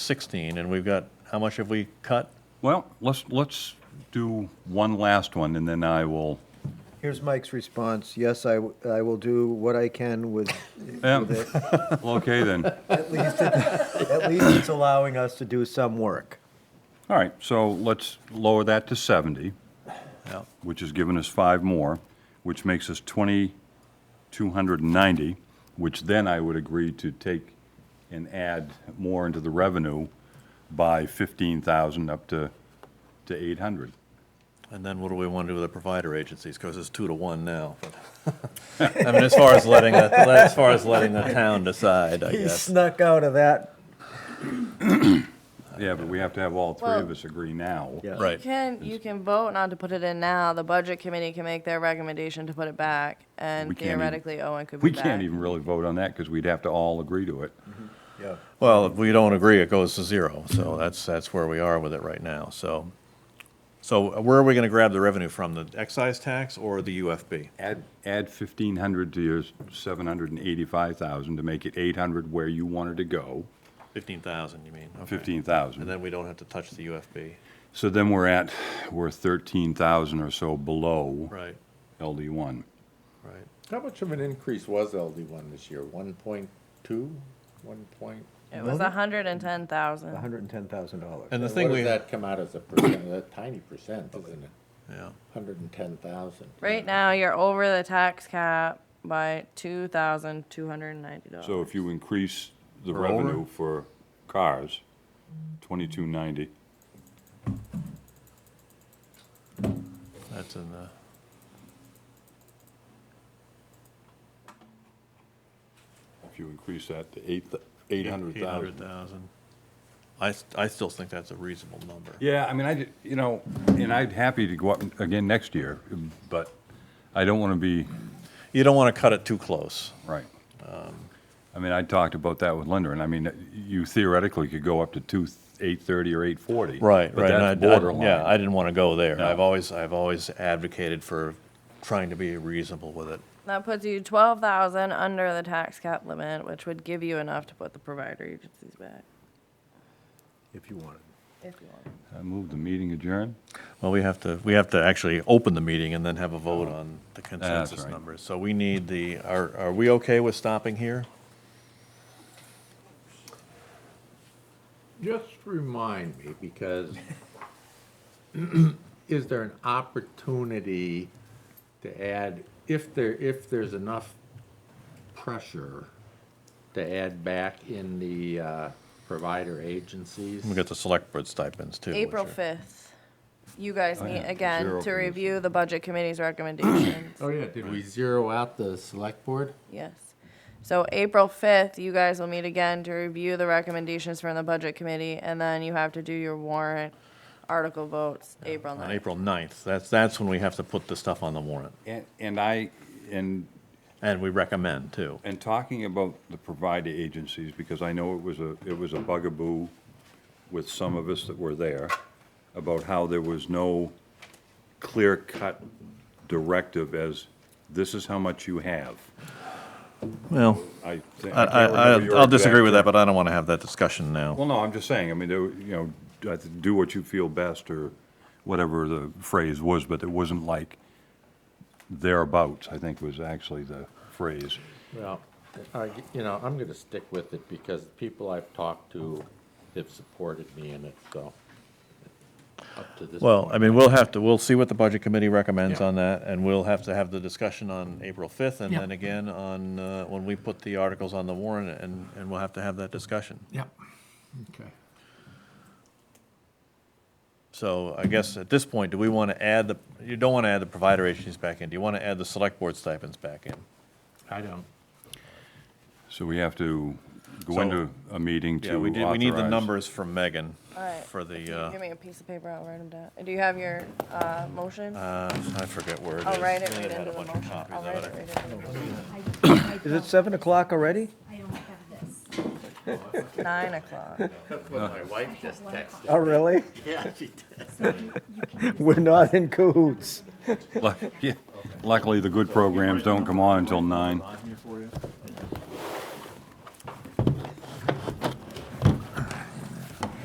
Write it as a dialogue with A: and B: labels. A: 16, and we've got, how much have we cut?
B: Well, let's, let's do one last one, and then I will,
C: Here's Mike's response. Yes, I, w- I will do what I can with, with
B: Yeah.
C: it.
B: eh, okay then.
C: At least, it- at least it's allowing us to do some work.
B: All right, so let's lower that to 70,
A: Yeah.
B: which has given us five more, which makes us 2,290, which then I would agree to take and add more into the revenue by 15,000 up to, to 800.
A: And then what do we want to do with the provider agencies? Because it's two to one now. I mean, as far as letting, the- as far as letting the town decide, I
C: He
A: guess.
C: snuck out of that.
B: Yeah, but we have to have all three of
D: Well-
B: us agree now.
C: Yeah.
A: Right.
D: You can, you can vote not to put it in now. The budget committee can make their recommendation to put it back,
B: We
D: and
B: can't even-
D: theoretically, Owen could be
B: We
D: back.
B: can't even really vote on that because we'd have to all agree to it.
C: Yeah.
A: Well, if we don't agree, it goes to zero. So that's, that's where we are with it right now, so. So uh, where are we going to grab the revenue from? The excise tax or the UFB?
B: Add, add 1,500 to your 785,000 to make it 800 where you wanted to go,
A: 15,000, you mean? okay. And
B: 15,000.
A: then we don't have to touch the UFB.
B: So then we're at, we're 13,000 or so below
A: Right,
B: LD1.
A: right.
E: How much of an increase was LD one this year? One point two, one point?
D: It was a hundred and ten thousand.
C: $110,000.
A: And the
E: And
A: thing
E: what
A: we,
E: does
A: yeah,
E: that come out as a percent? That tiny percent, isn't it? Hundred and ten thousand.
D: Right now, you're over the tax cap by two thousand two hundred and ninety dollars.
B: So if you increase the
A: We're over?
B: revenue for cars, 2,290,
A: that's in the,
B: if you increase that to eight th-
A: eight
B: 800,000.
A: hundred thousand. I, s- I still think that's a reasonable number.
B: Yeah, I mean, I, did- you know, and I'd happy to go up again next year, but I don't want to be,
A: You don't want to cut it too close.
B: right.
A: Um.
B: I mean, I talked about that with Linda, and I mean, you theoretically could go up to two, 830 or 840. But
A: and
B: that's
A: I- I-
B: borderline.
A: Yeah, I didn't want to go there.
B: No.
A: I've always, I've always advocated for trying to be reasonable with it.
D: That puts you twelve thousand under the tax cap limit, which would give you enough to put the provider agencies back,
C: If you wanted.
D: if you want.
B: I move the meeting adjourned.
A: Well, we have to, we have to actually open the meeting and then have a vote on the consensus
B: right.
A: numbers. So we need the, are, are we okay with stopping here?
E: Just remind me, because is there an opportunity to add, if there, if there's enough pressure to add back in the uh, provider agencies?
A: We got the select board stipends too. which
D: April
A: are-
D: fifth, you guys
B: yeah,
D: meet
B: the
D: again
B: zero
D: to
B: for this
D: review the budget committee's recommendations.
E: Oh, yeah, did we zero out the select board?
D: Yes. So April fifth, you guys will meet again to review the recommendations from the budget committee, and then you have to do your warrant article votes April
A: On
D: ninth.
A: April 9th, that's, that's when we have to put the stuff on the warrant,
B: And, and I, and,
A: and we recommend too.
B: and talking about the provider agencies, because I know it was a, it was a bugaboo with some of us that were there, about how there was no clear-cut directive as, this is how much you have.
A: Well,
B: I, thi-
A: I,
B: I can't
A: I,
B: remember your
A: I'll disagree
B: exact-
A: with that, but I don't want to have that discussion now.
B: Well, no, I'm just saying, I mean, there were, you know, I think do what you feel best, or whatever the phrase was, but it wasn't like thereabouts, I think was actually the phrase.
E: Well, I, you know, I'm gonna stick with it because the people I've talked to have supported me in it, so. Up to this.
A: Well, I mean, we'll have to, we'll see what the budget committee recommends
E: Yeah.
A: on that, and we'll have to have the discussion on April 5th, and then again on, uh, when we put the articles on the warrant, and, and we'll have to have that discussion.
E: Yep, okay.
A: So I guess at this point, do we want to add the, you don't want to add the provider agencies back in, do you want to add the select board stipends back in?
E: I don't.
B: So we have to go
A: So-
B: into a meeting to
A: Yeah, we did, we need the
B: authorize-
A: numbers from Megan
D: All right.
A: for
D: If you
A: the, uh,
D: Give me a piece of paper, I'll write them down. Do you have your, uh, motion?
A: uh, I forget where it is.
D: I'll write it
A: Lynn had
D: right
A: a
D: into the
A: bunch of
D: motion.
A: copies
D: I'll
A: of
D: write
A: it.
D: it right into the motion.
C: Is it 7 o'clock already?
F: I don't have this.
D: Nine o'clock.
E: That's what my wife just texted.
C: Oh, really?
E: Yeah, she did.
C: We're not in cahoots.
B: Luck- yeah. Luckily, the good programs don't come on until nine.